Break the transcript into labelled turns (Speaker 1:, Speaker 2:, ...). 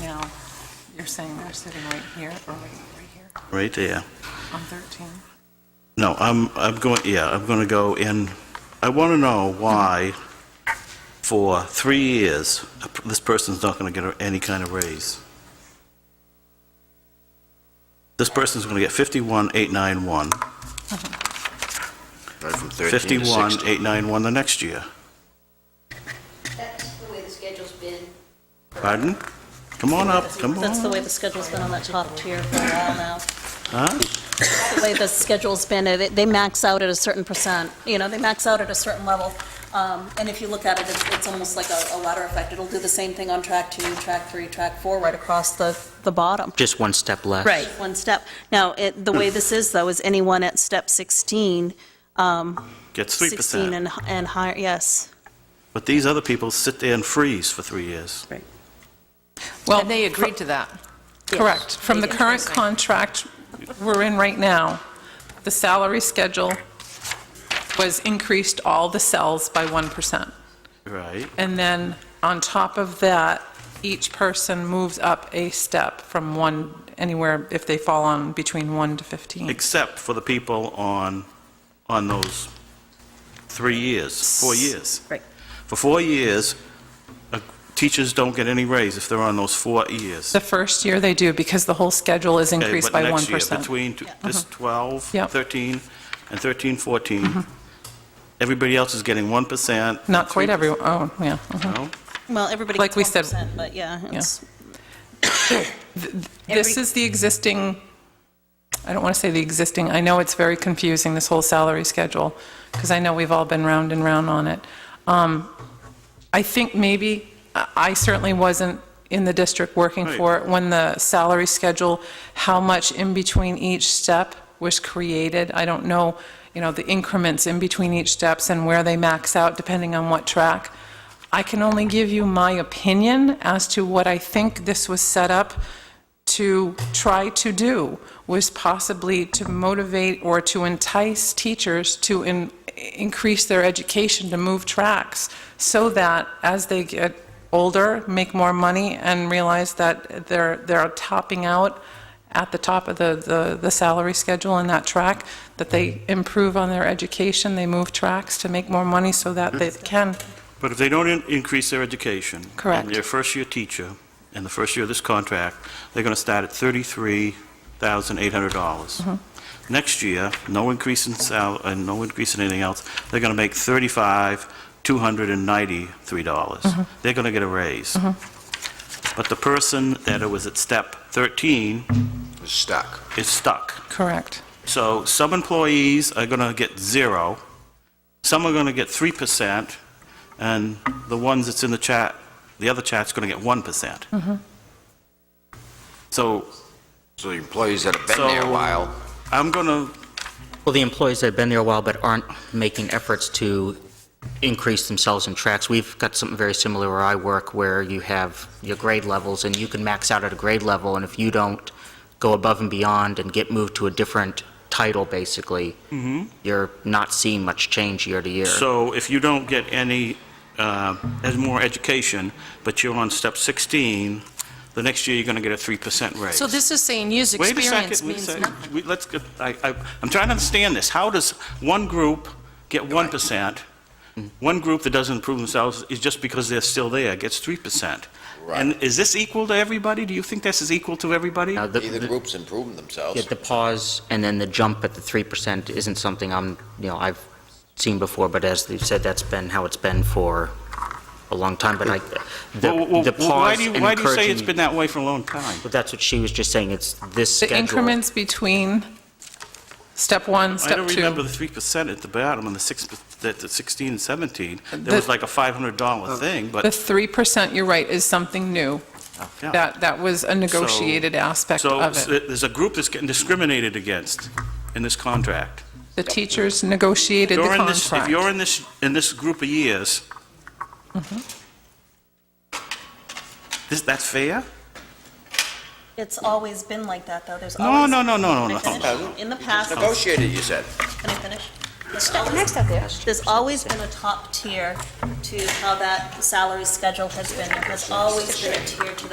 Speaker 1: now, you're saying they're sitting right here, or right right here,
Speaker 2: right there.
Speaker 1: on 13?
Speaker 2: No, I'm, I'm going, yeah, I'm going to go in, I want to know why for three years, a p- this person's not going to get any kind of raise. This person's going to get 51,891,
Speaker 3: Right from 13 to 16.
Speaker 2: 51,891 the next year.
Speaker 4: That's the way the schedule's been.
Speaker 2: Pardon? Come on up, come on.
Speaker 5: That's the way the schedule's been on that top tier for a while now.
Speaker 2: Huh?
Speaker 5: The way the schedule's been, they, they max out at a certain percent, you know, they max out at a certain level. Um, and if you look at it, it's, it's almost like a, a ladder effect. It'll do the same thing on track two, track three, track four, right across the, the bottom.
Speaker 6: Just one step left.
Speaker 5: One step. Now, it, the way this is though, is anyone at step 16, um,
Speaker 2: Gets
Speaker 5: 16
Speaker 2: 3%.
Speaker 5: and, h- and higher, yes.
Speaker 2: But these other people sit there and freeze for three years.
Speaker 1: Well,
Speaker 7: And they agreed to that.
Speaker 1: Correct. From the
Speaker 7: They did.
Speaker 1: current contract we're in right now, the salary schedule was increased all the cells by 1%.
Speaker 2: Right,
Speaker 1: And then on top of that, each person moves up a step from one, anywhere, if they fall on between 1 to 15.
Speaker 2: except for the people on, on those three years, four years.
Speaker 5: Right.
Speaker 2: For four years, uh, teachers don't get any raise if they're on those four years.
Speaker 1: The first year they do, because the whole schedule is
Speaker 2: Okay,
Speaker 1: increased by
Speaker 2: But next year,
Speaker 1: 1%.
Speaker 2: between t- this 12,
Speaker 1: Uh-huh. Yep. Uh-huh.
Speaker 2: 13, and 13, 14, everybody else is getting 1%.
Speaker 1: Not quite
Speaker 2: 3%.
Speaker 1: everyone, oh, yeah. mhm.
Speaker 2: No?
Speaker 5: Well, everybody
Speaker 1: Like
Speaker 5: gets
Speaker 1: we said-
Speaker 5: 1%, but yeah, it's,
Speaker 1: This
Speaker 7: Every-
Speaker 1: is the existing, I don't want to say the existing, I know it's very confusing, this whole salary schedule, because I know we've all been round and round on it. Um, I think maybe, I I certainly wasn't in the district working
Speaker 2: Right.
Speaker 1: for it when the salary schedule, how much in between each step was created. I don't know, you know, the increments in between each steps and where they max out depending on what track. I can only give you my opinion as to what I think this was set up to try to do, was possibly to motivate or to entice teachers to in- increase their education, to move tracks, so that as they get older, make more money, and realize that they're, they're topping out at the top of the, the, the salary schedule in that track, that they
Speaker 2: Mm-hmm.
Speaker 1: improve on their education, they move tracks to make more money so that they
Speaker 2: Mm-hmm.
Speaker 1: can
Speaker 2: But if they don't in- increase their education.
Speaker 1: Correct.
Speaker 2: And their first-year teacher, and the first year of this contract, they're going to start at $33,800. Next year, no increase in sal, and no increase in anything else, they're going to make $35,293. They're going to get a raise. But the person that was at step 13
Speaker 3: It's stuck.
Speaker 2: is stuck.
Speaker 1: Correct.
Speaker 2: So some employees are going to get zero, some are going to get 3%, and the ones that's in the chat, the other chat's going to get 1%. So
Speaker 3: So the employees that have been there a
Speaker 2: So-
Speaker 3: while,
Speaker 2: I'm going to,
Speaker 6: Well, the employees that have been there a while but aren't making efforts to increase themselves in tracks, we've got something very similar where I work, where you have your grade levels, and you can max out at a grade level, and if you don't go above and beyond and get moved to a different title, basically, you're not seeing much change year to year.
Speaker 2: so if you don't get any, uh, as more education, but you're on step 16, the next year you're going to get a 3% raise.
Speaker 7: So this is saying years
Speaker 2: Wait a second,
Speaker 7: experience
Speaker 2: wait a
Speaker 7: means
Speaker 2: second.
Speaker 7: nothing.
Speaker 2: We- Let's, get- I, I, I'm trying to understand this. How does one group get 1%? One group that doesn't improve themselves is just because they're still there, gets 3%. And is this equal to everybody? Do you think this is equal to everybody?
Speaker 6: Now, the-
Speaker 3: either
Speaker 6: the-
Speaker 3: group's improving
Speaker 6: Yeah,
Speaker 3: themselves.
Speaker 6: the pause and then the jump at the 3% isn't something I'm, you know, I've seen before, but as they've said, that's been how it's been for a long time, but I,
Speaker 2: Well,
Speaker 6: the
Speaker 2: well,
Speaker 6: the
Speaker 2: well, Why
Speaker 6: pause
Speaker 2: do you,
Speaker 6: and
Speaker 2: why do you say it's been
Speaker 6: encouraging...
Speaker 2: that way for a long time?
Speaker 6: But that's what she was just saying, it's this
Speaker 1: The
Speaker 6: schedule.
Speaker 1: increments between step one,
Speaker 2: I
Speaker 1: step
Speaker 2: don't remember
Speaker 1: two.
Speaker 2: the 3% at the bottom and the 6, that the 16 and 17.
Speaker 1: The-
Speaker 2: There was like a $500 thing,
Speaker 1: The
Speaker 2: but,
Speaker 1: 3%, you're right, is something new.
Speaker 2: yeah.
Speaker 1: That, that was a negotiated aspect
Speaker 2: So
Speaker 1: of
Speaker 2: s- uh,
Speaker 1: it.
Speaker 2: there's a group that's getting discriminated against in this contract.
Speaker 1: The teachers negotiated the
Speaker 2: You're in this- If you're
Speaker 1: contract.
Speaker 2: in this, in this group of years,
Speaker 1: Mm-hmm.
Speaker 2: is that fair?
Speaker 5: it's always been like that though, there's
Speaker 2: No,
Speaker 5: always.
Speaker 2: no, no, no, no,
Speaker 5: Can I
Speaker 2: no.
Speaker 5: finish? In the past.
Speaker 3: Negotiated, you said.
Speaker 5: Can I finish? Oh, Next up there. There's always been a top tier to how that salary schedule has been. There's always been a tier to that.